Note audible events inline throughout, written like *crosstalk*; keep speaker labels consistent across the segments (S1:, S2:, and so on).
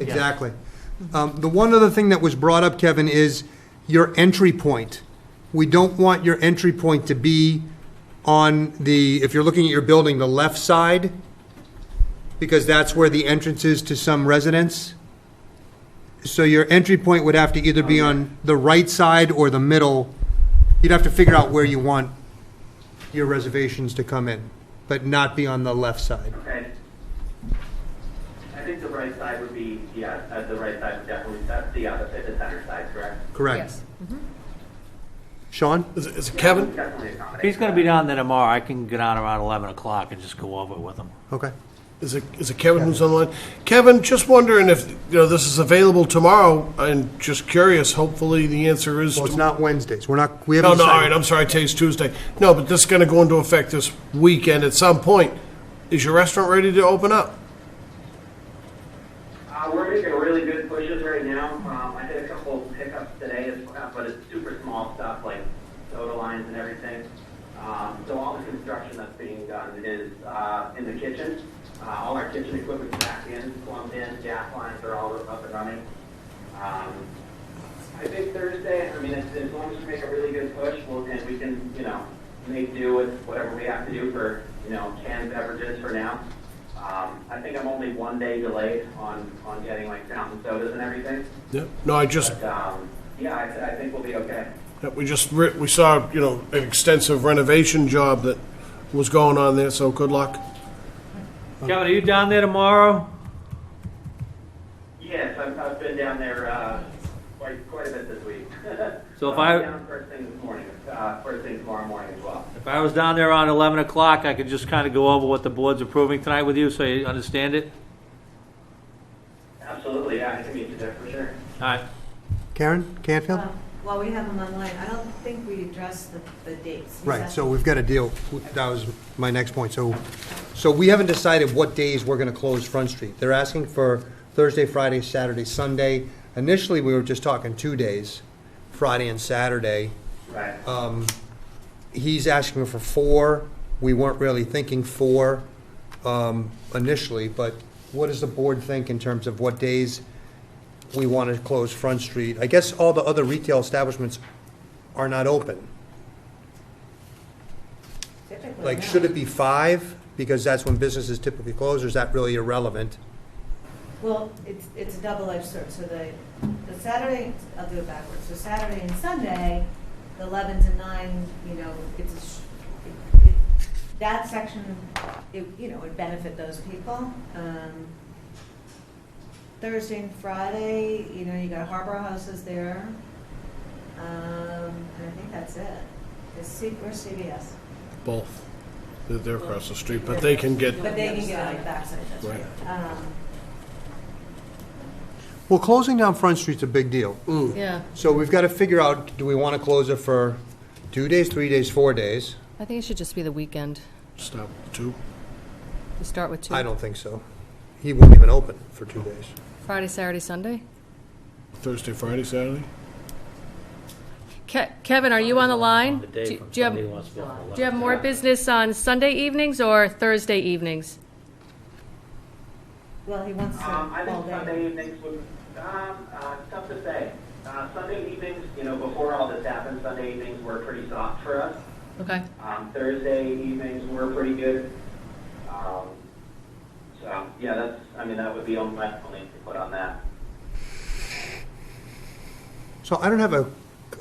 S1: exactly. Um, The one other thing that was brought up, Kevin, is your entry point. We don't want your entry point to be on the, if you're looking at your building, the left side, because that's where the entrance is to some residents. So your entry point would have to either be on the right side or the middle. You'd have to figure out where you want your reservations to come in, but not be on the left side.
S2: Okay. I think the right side would be, yeah, uh, the right side would definitely, that's the opposite, the center side, correct?
S1: Correct.
S3: Yes.
S1: Sean?
S4: Is it- is it Kevin?
S2: Definitely accommodate.
S5: He's gonna be down there tomorrow. I can get on around 11 o'clock and just go over it with him.
S1: Okay.
S4: Is it, is it Kevin who's on the line? Kevin, just wondering if, you know, this is available tomorrow, and just curious, hopefully the answer is.
S1: Well, it's
S4: to-
S1: not Wednesdays. We're not, we haven't
S4: No, no, all
S1: decided.
S4: right, I'm sorry, today's Tuesday. No, but this is gonna go into effect this weekend at some point. Is your restaurant ready to open up?
S2: Uh, we're making really good pushes right now. Um, I did a couple pickups today as well, but it's super small stuff like soda lines and everything. Um, so all the construction that's being done is, uh, in the kitchen. Uh, all our kitchen equipment's back in, plumbed in, gas lines are all up and running. Um, I think Thursday, I mean, as, as long as we make a really good push, we'll, and we can, you know, make do with whatever we have to do for, you know, canned beverages for now. Um, I think I'm only one day delayed on, on getting like fountain sodas and everything,
S4: Yeah. No, I just,
S2: but, um, yeah, I, I think we'll be okay.
S4: we just, re- we saw, you know, an extensive renovation job that was going on there, so good luck.
S5: Kevin, are you down there tomorrow?
S2: Yes, I've, I've been down there, uh, quite, quite a bit this week.
S5: So if
S2: Uh,
S5: I-
S2: *laughs* Down first thing this morning, uh, first thing tomorrow morning as well.
S5: If I was down there around 11 o'clock, I could just kind of go over what the board's approving tonight with you, so you understand it?
S2: Absolutely, yeah, I can meet you there for sure.
S5: All right.
S1: Karen Canfield?
S6: Well, Uh, While we have them online, I don't think we addressed the, the dates. We
S1: Right,
S6: set-
S1: so we've got a deal. That was my next point. So, so we haven't decided what days we're going to close Front Street. They're asking for Thursday, Friday, Saturday, Sunday. Initially, we were just talking two days, Friday and Saturday.
S2: Right.
S1: He's asking for four. We weren't really thinking four um, initially, but what does the board think in terms of what days we want to close Front Street? I guess all the other retail establishments are not open.
S6: Typically,
S1: Like,
S6: no.
S1: should it be five? Because that's when businesses typically close, or is that really irrelevant?
S6: Well, it's, it's a double-edged sword, so the, the Saturday, I'll do it backwards, so Saturday and Sunday, the eleven to nine, you know, it's, a sh- it- it- that section, it, you know, would benefit those people. Um, Thursday and Friday, you know, you got Harbor Houses there, um, and I think that's it. Is C, where's CVS?
S4: Both. They're- They're across the street, but they can get,
S6: But they can get on the backside, that's
S4: Right.
S6: right. Um,
S1: Well, closing down Front Street's a big deal.
S3: Yeah,
S1: So we've got to figure out, do we want to close it for two days, three days, four days?
S3: I think it should just be the weekend.
S4: stop, two.
S3: You start with two.
S1: I don't think so. He won't even open for two days.
S3: Friday, Saturday, Sunday?
S4: Thursday, Friday, Saturday?
S3: Ke- Kevin, are you on the line?
S5: The day
S3: Do-
S5: from
S3: do you have-
S5: Sunday he wants to go from
S3: Do you have
S5: 11.
S3: more business on Sunday evenings or Thursday evenings?
S6: Well, he wants to
S2: Um, I
S6: all
S2: think Sunday
S6: day.
S2: evenings would, um, uh, it's tough to say. Uh, Sunday evenings, you know, before all this happened, Sunday evenings were pretty soft for us.
S3: Okay.
S2: Um, Thursday evenings were pretty good. Um, so, yeah, that's, I mean, that would be on my only input on that.
S1: So I don't have a,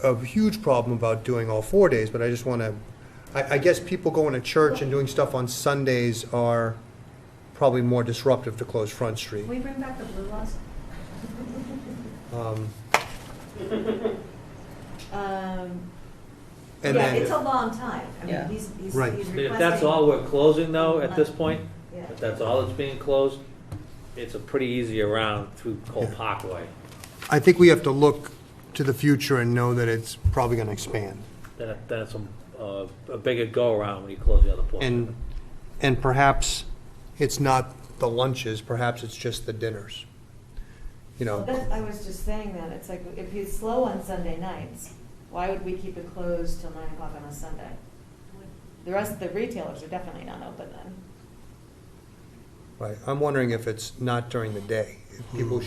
S1: a huge problem about doing all four days, but I just want to, I, I guess people going to church and doing stuff on Sundays are probably more disruptive to close Front Street.
S6: Can we bring back the blue laws?
S1: Um,
S6: *laughs* Um,
S1: And
S6: yeah,
S1: then-
S6: it's a long time. I mean,
S3: Yeah.
S6: he's, he's, he's
S1: Right.
S5: I
S6: requesting.
S5: mean, If that's all we're closing though, at this point,
S6: Yeah.
S5: if that's all that's being closed, it's a pretty easy round through Cole Parkway.
S1: I think we have to look to the future and know that it's probably going to expand.
S5: Then it- then it's a, uh, a bigger go-around when you close the other portion.
S1: And, and perhaps it's not the lunches, perhaps it's just the dinners. You
S6: Well,
S1: know,
S6: that- I was just saying that, it's like, if he's slow on Sunday nights, why would we keep it closed till nine o'clock on a Sunday? The rest of the retailers are definitely not open then.
S1: right, I'm wondering if it's not during the day. If people